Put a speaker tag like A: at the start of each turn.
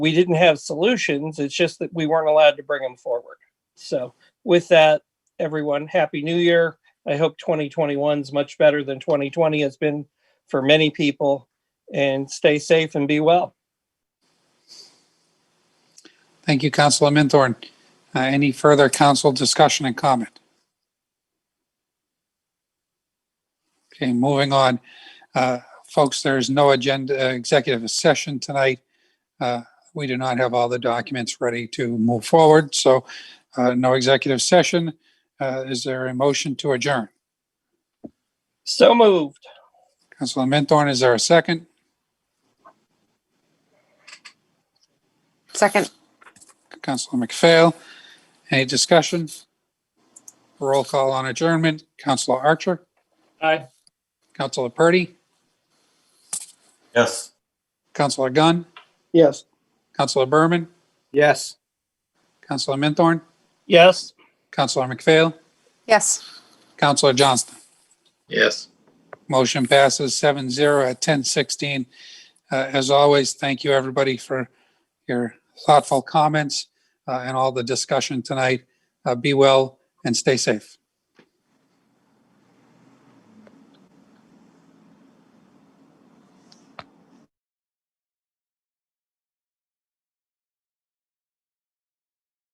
A: we didn't have solutions. It's just that we weren't allowed to bring them forward. So with that, everyone, happy new year. I hope 2021 is much better than 2020 has been for many people and stay safe and be well.
B: Thank you, Councilor Minthorn. Uh, Any further council discussion and comment? Okay, moving on. Uh, Folks, there is no agenda, uh, executive session tonight. Uh, We do not have all the documents ready to move forward, so uh, no executive session. Uh, Is there a motion to adjourn?
A: So moved.
B: Councilor Minthorn, is there a second?
C: Second,
B: Councilor McPhail, any discussion? Roll call on adjournment. Councilor Archer?
A: Aye.
B: Councilor Purdy?
D: Yes.
B: Councilor Gunn?
A: Yes.
B: Councilor Berman?
D: Yes.
B: Councilor Minthorn?
A: Yes.
B: Councilor McPhail?
C: yes.
B: Councilor Johnston?
D: Yes.
B: Motion passes 7-0 at ten sixteen. Uh, as always, thank you everybody for your thoughtful comments, uh, and all the discussion tonight. Uh, be well and stay safe.